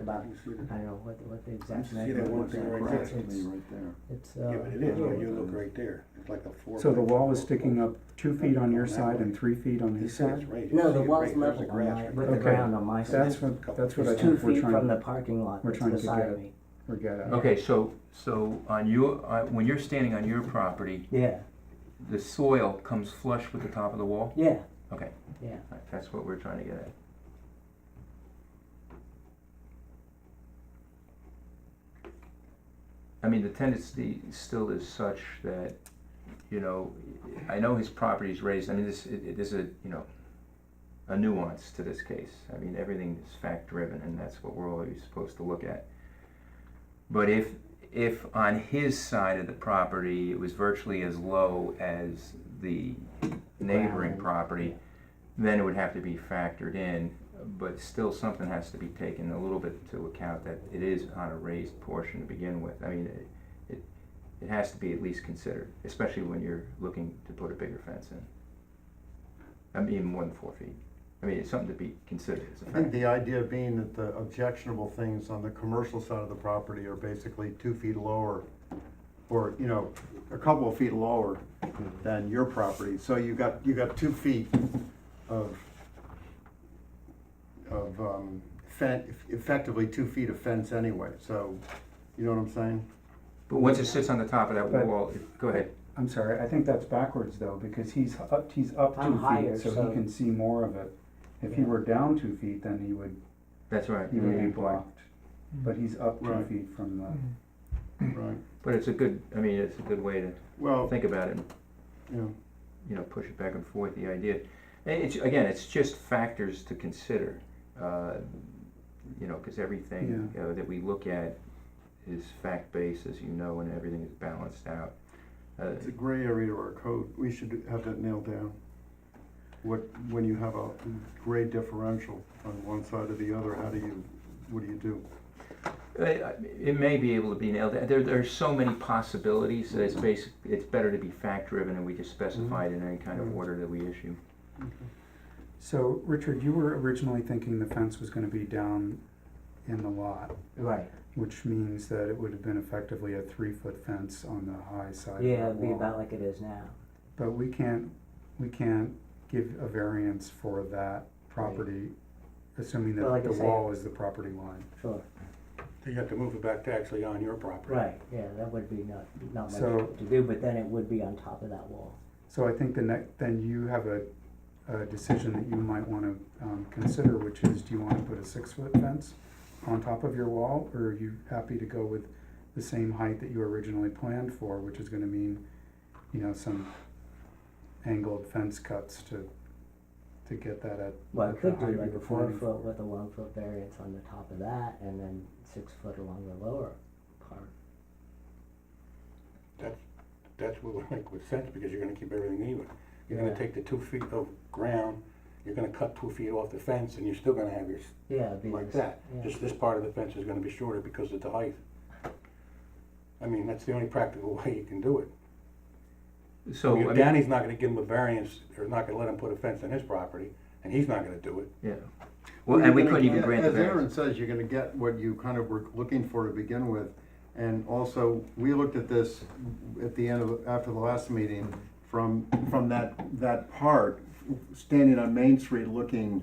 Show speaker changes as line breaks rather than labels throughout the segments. about.
You see
I
that?
don't know what, what the
You
exact
see that
measurement
one
was.
thing
like, but
right there?
it's-
That's me right there.
It's,
Yeah,
uh,
but it is, when you look right there, it's like a four.
So the wall is sticking up two feet on your side and three feet on
He
his
said it's
side?
right. You see
no,
it
the
right-
wall's
there's
level
the
on
grass
my,
right
with the
there.
Okay.
ground on my side.
That's what, that's what I
It's two
think we're
feet from the
trying,
parking lot,
we're
that's
trying to
beside
get-
me.
we're getting at.
Okay, so, so on your, on- when you're standing on your property,
Yeah,
the soil comes flush with the top of the wall?
yeah,
Okay,
yeah.
all right, that's what we're trying to get at. I mean, the tendency still is such that, you know, I know his property's raised, I mean, this, it, it- there's a, you know, a nuance to this case. I mean, everything is fact-driven, and that's what we're always supposed to look at. But if, if on his side of the property, it was virtually as low as the
Ground,
neighboring
yeah.
property, then it would have to be factored in, but still something has to be taken a little bit into account that it is on a raised portion to begin with. I mean, it, it, it has to be at least considered, especially when you're looking to put a bigger fence in. I mean, more than four feet. I mean, it's something to be considered, it's a
I think
fact.
the idea being that the objectionable things on the commercial side of the property are basically two feet lower, or, you know, a couple of feet lower than your property, so you got, you got two feet of, of, um, fen, effectively two feet of fence anyway, so, you know what I'm saying?
But once it sits on the top of that
But-
wall, it- go ahead.
I'm sorry, I think that's backwards though, because he's up, he's up
I'm
two
higher,
feet, so
so-
he can see more of it. If he
Yeah.
were down two feet, then he would,
That's right.
he would be
Yeah.
blocked. But he's up two
Right.
feet from the, Hmm.
Right,
But it's a good, I mean, it's a good way to
well,
think about it
you know.
you know, push it back and forth, the idea. And it's, again, it's just factors to consider, uh, you know, because everything uh, that we look at is fact-based, as you know, and everything is balanced out. Uh,
It's a gray area to our code, we should have that nailed down. What, when you have a grade differential on one side or the other, how do you, what do you do?
I- I- It may be able to be nailed, there, there are so many possibilities that it's basic, it's better to be fact-driven and we just specify it in any kind of
Mhm.
order that we issue.
so Richard, you were originally thinking the fence was gonna be down in the lot,
Right,
which means that it would have been effectively a three-foot fence on the high side of the wall.
yeah, it'd be about like it is now.
But we can't, we can't give a variance for that property, assuming
Well,
that
like I
the
say-
wall is the property line.
Sure,
You have to move it back to actually on your property.
right, yeah, that would be not, not much
So-
to do, but then it would be on top of that wall.
So I think the next, then you have a, a decision that you might wanna, um, consider, which is, do you wanna put a six-foot fence on top of your wall, or are you happy to go with the same height that you originally planned for, which is gonna mean, you know, some angled fence cuts to, to get that at
Well, I
at the
could
height
do
you
like
were
a four
planning
foot
for.
with a one foot variance on the top of that, and then six foot along the lower part.
That's, that's what would make good sense, because you're gonna keep everything even. You're gonna
Yeah.
take the two feet of ground, you're gonna cut two feet off the fence, and you're still gonna have your, s-
Yeah, it'd be
like
this-
that.
yeah.
Just this part of the fence is gonna be shorter because of the height. I mean, that's the only practical way you can do it.
So, I
Your
mean,
Danny's not gonna give him a variance, or not gonna let him put a fence on his property, and he's not gonna do it.
yeah. Well, and we couldn't even grant the
As Aaron
variance.
says, you're gonna get what you kind of were looking for to begin with. And also, we looked at this at the end of, after the last meeting, from, from that, that part, standing on Main Street looking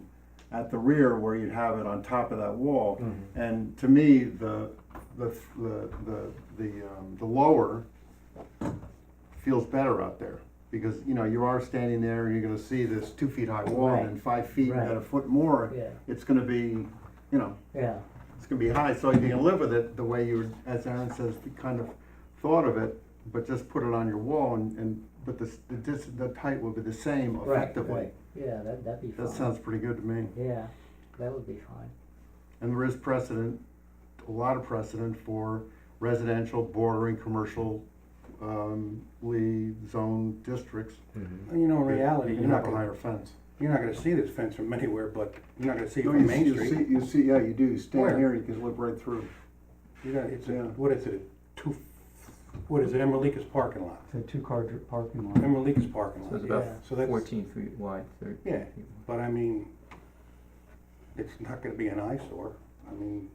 at the rear where you'd have it on top of that wall.
Mm-hmm.
And to me, the, the, the, the, the, um, the lower feels better out there. Because, you know, you are standing there and you're gonna see this two feet high wall and then five feet and then a
Right.
foot more
Yeah,
it's gonna be, you know,
yeah,
it's gonna be high, so if you can live with it the way you, as Aaron says, you kind of thought of it, but just put it on your wall and, and, but the, s- the dis, the height will be the same
right,
effectively.
right, yeah, that, that'd be fine.
That sounds pretty good to me,
Yeah, that would be fine.
and there is precedent, a lot of precedent for residential bordering commercial, um, lee zone districts.
And you know, in reality, you're
You
not
have a
gonna,
higher fence.
you're not gonna see this fence from anywhere, but, you're not gonna see it
No,
from
you
Main
see-
Street.
You see, you see, yeah, you do, you
Where?
stand here, you can look right through.
You know, it's a,
Yeah.
what is it, a two, what is it, Emerlikas parking lot?
It's a two-car dr- parking lot.
Emerlikas parking
So it's
lot,
about
Yeah.
so that's,
fourteen feet wide, thirteen
yeah,
feet wide.
but I mean, it's not gonna be an eyesore, I mean,